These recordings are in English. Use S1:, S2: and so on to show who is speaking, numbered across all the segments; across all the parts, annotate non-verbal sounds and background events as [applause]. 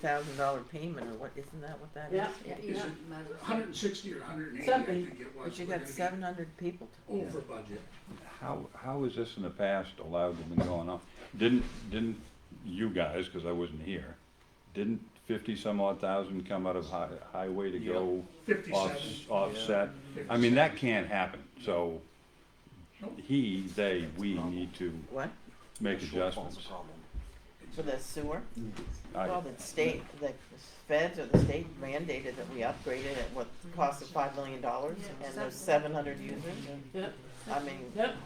S1: thousand dollar payment or what, isn't that what that is?
S2: Yeah, yeah,
S3: Is
S2: yeah.
S3: it hundred and sixty or hundred and eighty, I
S2: Something.
S3: think it was.
S1: But you
S3: We're
S1: got
S3: gonna
S1: seven hundred people to
S3: be Over budget.
S4: How, how is this in the past allowed to be going on? Didn't, didn't you guys, cause I wasn't here, didn't fifty some odd thousand come out of hi- highway to go
S3: Fifty-seven.
S4: offs- offset? I mean, that can't happen, so
S3: Nope.
S4: he, they, we need to
S1: What,
S4: make adjustments.
S1: for the sewer? Well,
S4: I,
S1: the state, the feds or the state mandated that we upgrade it at what cost of five million dollars and there's seven hundred users.
S2: Yep.
S1: I mean,
S2: Yep,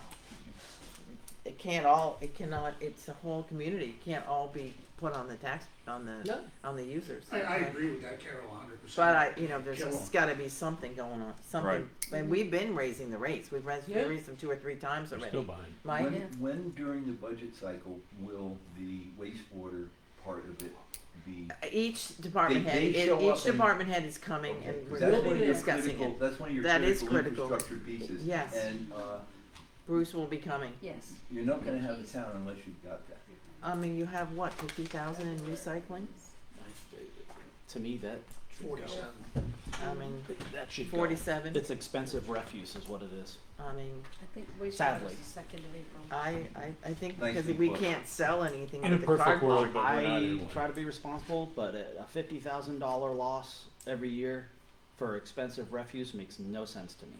S1: it can't all, it cannot, it's a whole community, it can't all be put on the tax, on the,
S2: No.
S1: on the users.
S3: I, I agree with that, Carol, hundred percent.
S1: But I, you know, there's
S3: Kill 'em.
S1: just gotta be something going on, something,
S4: Right.
S1: and we've been raising the rates, we've raised, we
S2: Yeah.
S1: raised them two or three times
S5: They're
S1: already.
S5: still buying.
S1: Mike?
S6: When, when during the budget cycle will the wastewater part of it be?
S1: Each department
S6: They-
S1: head,
S6: they
S1: it-
S6: show up
S1: each
S6: and-
S1: department head is coming
S6: Okay,
S1: and
S6: 'cause
S1: we're
S6: that's
S1: gonna
S6: one of
S1: be
S6: your
S1: discussing
S6: critical-
S1: it.
S6: That's one of your
S1: That is
S6: critical
S1: critical.
S6: infrastructure pieces.
S1: Yes.
S6: And, uh,
S1: Bruce will be coming.
S7: Yes.
S6: you're not gonna have a town unless you've got that.
S1: I mean, you have what, fifty thousand in recycling?
S5: To me, that should go.
S3: Forty-seven.
S1: I mean,
S5: That should go.
S1: forty-seven,
S5: It's expensive refuse is what it is.
S1: I mean,
S7: I think we should have
S5: Sadly.
S7: the second of April.
S1: I, I, I think
S6: Nice
S1: because
S6: big
S1: we
S6: book.
S1: can't sell anything
S8: In a
S1: with the
S8: perfect
S1: cardboard.
S8: world, but we're not
S5: I
S8: in one.
S5: try to be responsible, but a a fifty thousand dollar loss every year for expensive refuse makes no sense to me.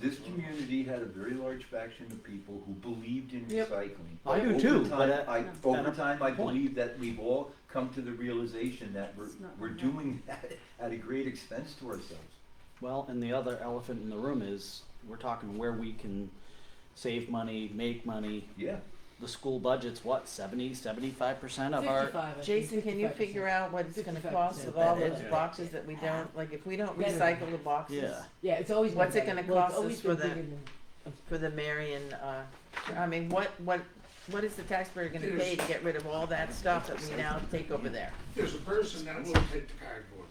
S6: This community had a very large faction of people who believed in
S2: Yep.
S6: recycling.
S5: I do
S6: Over
S5: too,
S6: time,
S5: but uh, at-
S6: I,
S7: at
S6: over
S5: a
S6: time, I
S5: point.
S6: believe that we've all come to the realization that we're,
S7: It's not
S6: we're
S7: enough.
S6: doing [laughs] that at a great expense to ourselves.
S5: Well, and the other elephant in the room is, we're talking where we can save money, make money.
S6: Yeah.
S5: The school budget's what, seventy, seventy-five percent of our,
S2: fifty-five.
S1: Jason, can you figure out what it's gonna
S2: 55%.
S1: cost with all those
S2: Yeah.
S1: boxes that we don't, like, if we don't
S2: Better.
S1: recycle the boxes
S5: Yeah.
S2: Yeah, it's always. been
S1: What's it
S2: better.
S1: gonna
S2: Well, it's
S1: cost
S2: always
S1: us for
S2: been
S1: the-
S2: bigger than-
S1: for the Marion, uh, I mean, what, what, what is the taxpayer gonna
S3: There's-
S1: pay to get rid of all that stuff that we now take over there?
S3: There's a person that will take the cardboard,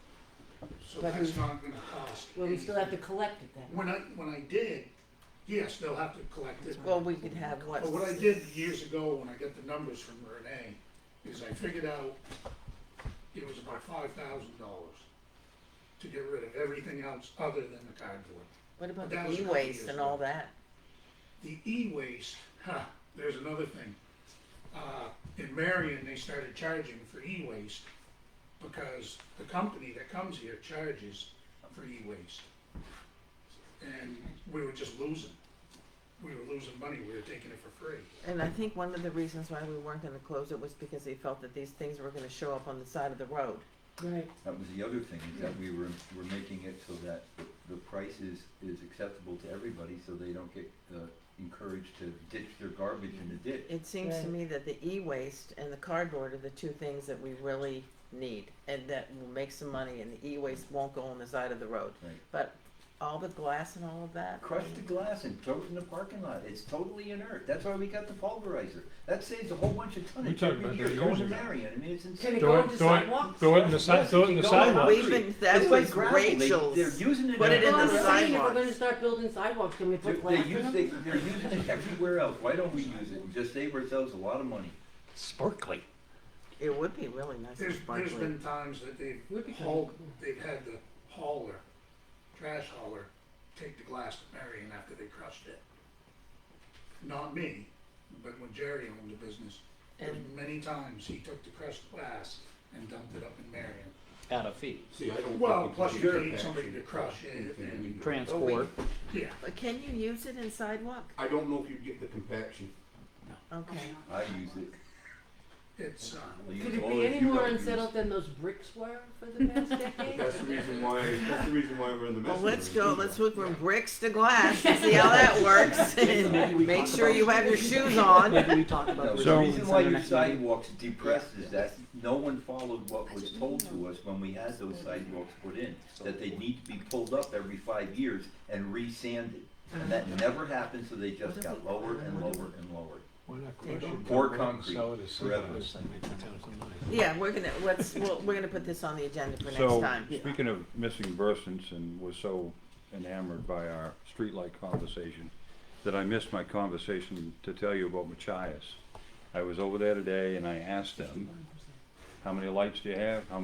S3: so
S2: But
S3: that's
S2: who-
S3: not gonna cost.
S2: Well, we still have to
S3: anything.
S2: collect it then.
S3: When I, when I did, yes, they'll have to collect it.
S1: Well, we could have what?
S3: But what I did years ago, when I got the numbers from Renee, is I figured out it was about five thousand dollars to get rid of everything else other than the cardboard.
S1: What about
S3: That
S1: the
S3: was a couple
S1: e-waste
S3: years
S1: and
S3: ago.
S1: all that?
S3: The e-waste, huh, there's another thing. Uh, in Marion, they started charging for e-waste because the company that comes here charges for e-waste. And we were just losing. We were losing money, we were taking it for free.
S1: And I think one of the reasons why we weren't gonna close it was because they felt that these things were gonna show up on the side of the road.
S2: Right.
S6: That was the other thing, is that we were, we're making it so that the- the price is, is acceptable to everybody, so they don't get, uh, encouraged to ditch their garbage in the ditch.
S1: It seems to
S2: Right.
S1: me that the e-waste and the cardboard are the two things that we really need and that will make some money and the e-waste won't go on the side of the road.
S6: Right.
S1: But all the glass and all of that,
S6: Crush the glass and throw it in the parking lot, it's totally inert, that's why we got the pulverizer, that saves a whole bunch of tonnage
S8: talked
S6: every
S8: about
S6: year,
S8: that
S6: goes
S8: years
S6: to
S8: ago.
S6: Marion, I mean, it's
S2: Can it
S6: insane.
S8: Throw
S2: go
S8: it-
S2: into
S8: throw it-
S2: sidewalks?
S8: throw it in the si- throw it
S6: Yes, it
S8: in the
S6: can go on
S8: sidewalk.
S1: We've
S6: the
S1: been-
S6: street.
S1: that was
S6: It's like gravel. They-
S1: Rachel's.
S6: They're using it.
S1: Put it in the
S2: Well, I'm
S6: everywhere.
S2: just saying, if we're
S1: sidewalks.
S2: gonna start building sidewalks, can we
S6: They,
S2: put glass
S6: they
S2: in
S6: use,
S2: them?
S6: they, they're using it everywhere else, why don't we use it and just save ourselves a lot of money?
S8: Sparkly.
S1: it would be really nice and
S3: There's, there's
S1: sparkly.
S3: been times that they've
S2: Would be kinda
S3: hauled,
S2: cool.
S3: they've had the hauler, trash hauler, take the glass to Marion after they crushed it. Not me, but when Jerry owned the business, there's
S1: And-
S3: many times he took the crushed glass and dumped it up in Marion.
S5: out of fee?
S3: Oh,
S8: See, I don't.
S3: Well, plus you paid somebody to crush it and,
S5: Transport,
S3: yeah.
S1: But can you use it in sidewalk?
S8: I don't know if you get the compaction.
S1: Okay.
S6: I use it.
S3: It's, uh,
S6: I'll use
S2: Could it
S6: all
S2: be
S6: the
S2: any
S6: few
S2: more
S6: I use.
S2: unsettled than those bricks were for the
S6: [laughs]
S2: past decade?
S8: That's the reason why, that's the reason why we're in the
S1: Well,
S8: mess.
S1: let's go, let's move from bricks to glass and see how that works.
S5: [laughs] Maybe we
S1: Make
S5: talk
S1: sure
S5: about-
S1: you have your shoes
S5: [laughs]
S1: on.
S5: maybe we talk about.
S6: No,
S5: the
S6: the
S4: So-
S5: reasons
S6: reason
S5: in
S6: why
S5: the
S6: your
S5: next meeting.
S6: sidewalks depressed is that no one followed what was told to us when we had those sidewalks put in, that they need to be pulled up every five years and re-sanded.
S2: [laughs]
S6: And that never happened, so they just got lower and lower and lower. Pour concrete forever.
S1: Yeah, we're gonna, let's, we'll- we're gonna put this on the agenda for next
S4: So,
S1: time.
S4: speaking of missing persons, and was so enamored by our streetlight conversation, that I missed my conversation to tell you about Machias. I was over there today and I asked them, how many lights do you have? How